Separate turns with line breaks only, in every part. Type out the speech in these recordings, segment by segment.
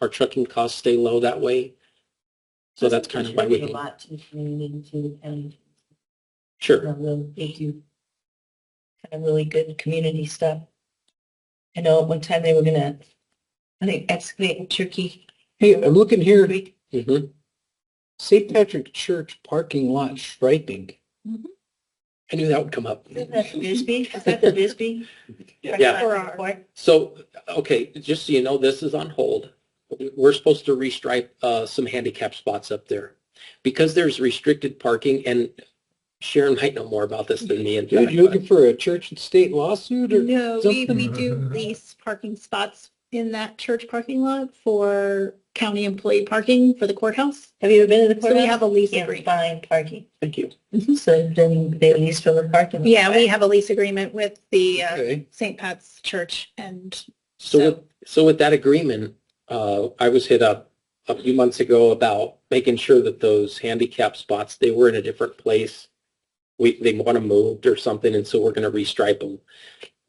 our trucking costs stay low that way. So that's kind of why we
Contribute A
can,
lot to the community too, and
sure.
um, they'll- they do kind of really good community stuff. I know at one time they were gonna, I think excavate in Turkey.
Hey, I'm looking here,
Mhm.
St. Patrick Church parking lot striping.
I knew that would come up.
Isn't that for Bisbee? Is that for Bisbee?
Yeah.
Or our-
So, okay, just so you know, this is on hold. We're supposed to restripe uh, some handicap spots up there. Because there's restricted parking, and Sharon might know more about this than me. in
Dude,
fact,
you
but-
looking for a church and state lawsuit or?
No, we, we
something.
do lease parking spots in that church parking lot for county employee parking for the courthouse.
Have you ever been to the
So
courthouse?
we have a lease
Can't
agreement.
find parking.
Thank you.
So then they at least fill the parking.
Yeah, we have a lease agreement with the uh,
Okay.
St. Pat's Church and
So,
So-
with, so with that agreement, uh, I was hit up a few months ago about making sure that those handicap spots they were in a different place. We they want them moved or something, and so we're going to restripe them.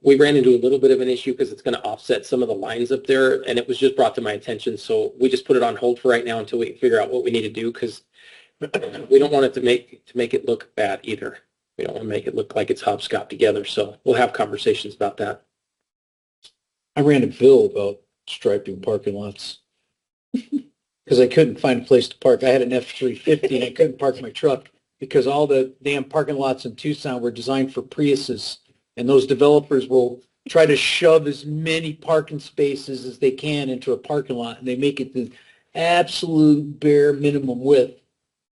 We ran into a little bit of an issue because it's going to offset some of the lines up there, and it was just brought to my attention. So we just put it on hold for right now until we figure out what we need to do because we don't want it to make to make it look bad either. We don't want to make it look like it's hopscotch together. So we'll have conversations about that.
I ran a bill about striping parking lots. Because I couldn't find a place to park. I had an F-350 and I couldn't park my truck because all the damn parking lots in Tucson were designed for Priuses. And those developers will try to shove as many parking spaces as they can into a parking lot and they make it the absolute bare minimum width.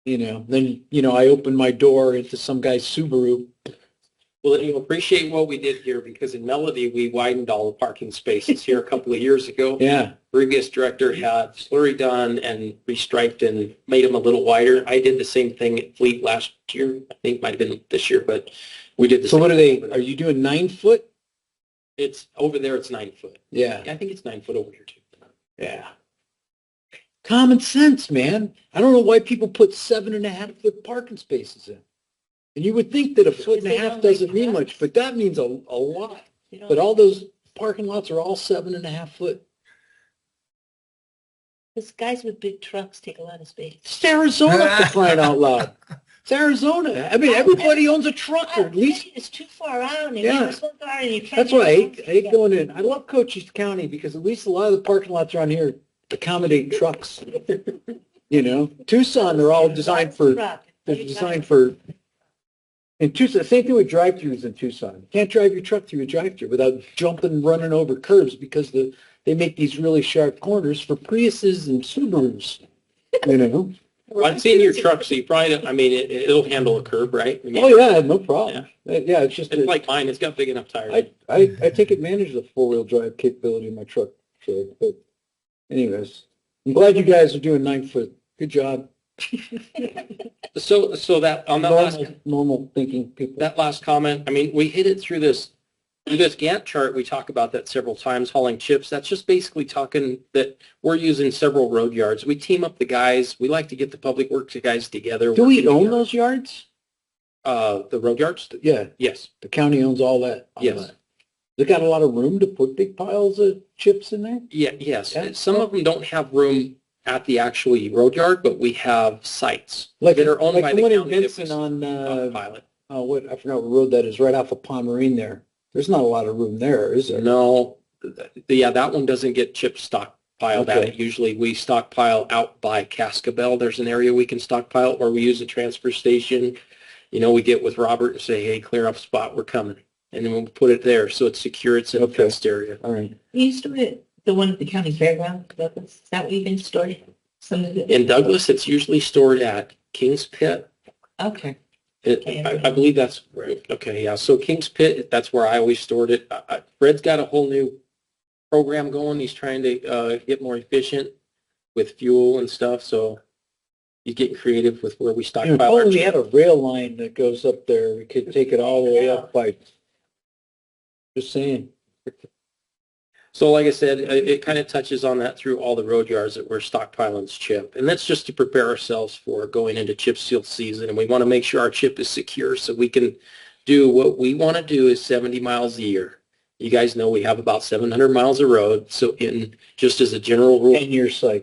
You know, then, you know, I opened my door into some guy's Subaru.
Well, and you appreciate what we did here because in Melody, we widened all the parking spaces here a couple of years ago.
Yeah.
Previous director had slurry done and restriped and made them a little wider. I did the same thing at Fleet last year. I think it might have been this year, but we did the
So
same
what are they,
thing over
are
there.
you doing nine foot?
It's over there, it's nine foot.
Yeah.
I think it's nine foot over here too.
Yeah. Common sense, man. I don't know why people put seven and a half foot parking spaces in. And you would think that a foot and
Because
a
they
half
don't
doesn't
like cars.
mean much, but that means a, a lot.
You know,
But all those parking lots are all seven and a half foot.
Because guys with big trucks take a lot of space.
It's Arizona for crying out loud. It's Arizona. I mean, everybody owns a truck or at least,
It's too far out and
Yeah.
it's one car and you're trying.
that's why I hate, I hate going in. I love Cochise County because at least a lot of the parking lots around here accommodate trucks. You know, Tucson, they're all designed for They're designed for, in Tucson, same thing with drive-throughs in Tucson. You Can't drive your truck through a drive-through without jumping, running over curves because the, they make these really sharp corners for Priuses and Subarus, you know?
Well, I've seen your truck, so you probably, don't- I mean, it, it'll handle a curb, right? I mean,
Oh, yeah, no problem. Uh, Yeah, it's just,
It's
that
like mine, it's got big enough tires.
I, I, I take advantage of the four-wheel drive capability in my truck, so, but anyways. I'm glad you guys are doing nine-foot. Good job.
So, so that, on that last
Normal, normal thinking people.
that last comment, I mean, we hit it through this, through this Gantt chart, we talk about that several times, hauling chips. That's just basically talking that we're using several road yards. We team up the guys. We like to get the public works guys together.
Do we
working
own
together.
those yards?
Uh, the road yards?
Yeah.
Yes.
The county owns all that. all
Yes.
that. They got a lot of room to put big piles of chips in there?
Yeah, yes.
Yeah.
Some of them don't have room at the actual road yard, but we have sites
Like,
that are owned
like
by
the
the
one in
county that
Vincent
we
on, uh,
stockpile it.
oh, what, I forgot what road that is, right off of Pomerine there. There's not a lot of room there, is there?
No, th- th- yeah, that one doesn't get chip stockpiled at
Okay.
it. Usually we stockpile out by Cascabel. There's an area we can stockpile or we use a transfer station. You know, we get with Robert and say, hey, clear up spot, we're coming. And then we'll put it there. So it's secure, it's in a
Okay.
fenced area.
All right.
You used to be at the one at the county fairground, Douglas, is that what you've been stored? Some of the,
In Douglas, it's usually stored at King's Pit.
okay.
It,
Okay.
I, I believe that's, okay, yeah. So King's Pit, that's where I always stored it. I- I- Fred's got a whole new program going. He's trying to, uh, get more efficient with fuel and stuff, so he's getting creative with where we
If
stockpile. our
only Oh, we had a rail line that goes up there, we could take it all the way up by, just saying.
So like I said, it, it kind of touches on that through all the road yards that we're stockpiling is chip. And that's just to prepare ourselves for going into chip seal season. And we want to make sure our chip is secure so we can do what we want to do is 70 miles a year. You guys know we have about seven hundred miles of road, so in, just as a general rule.
Ten-year cycle.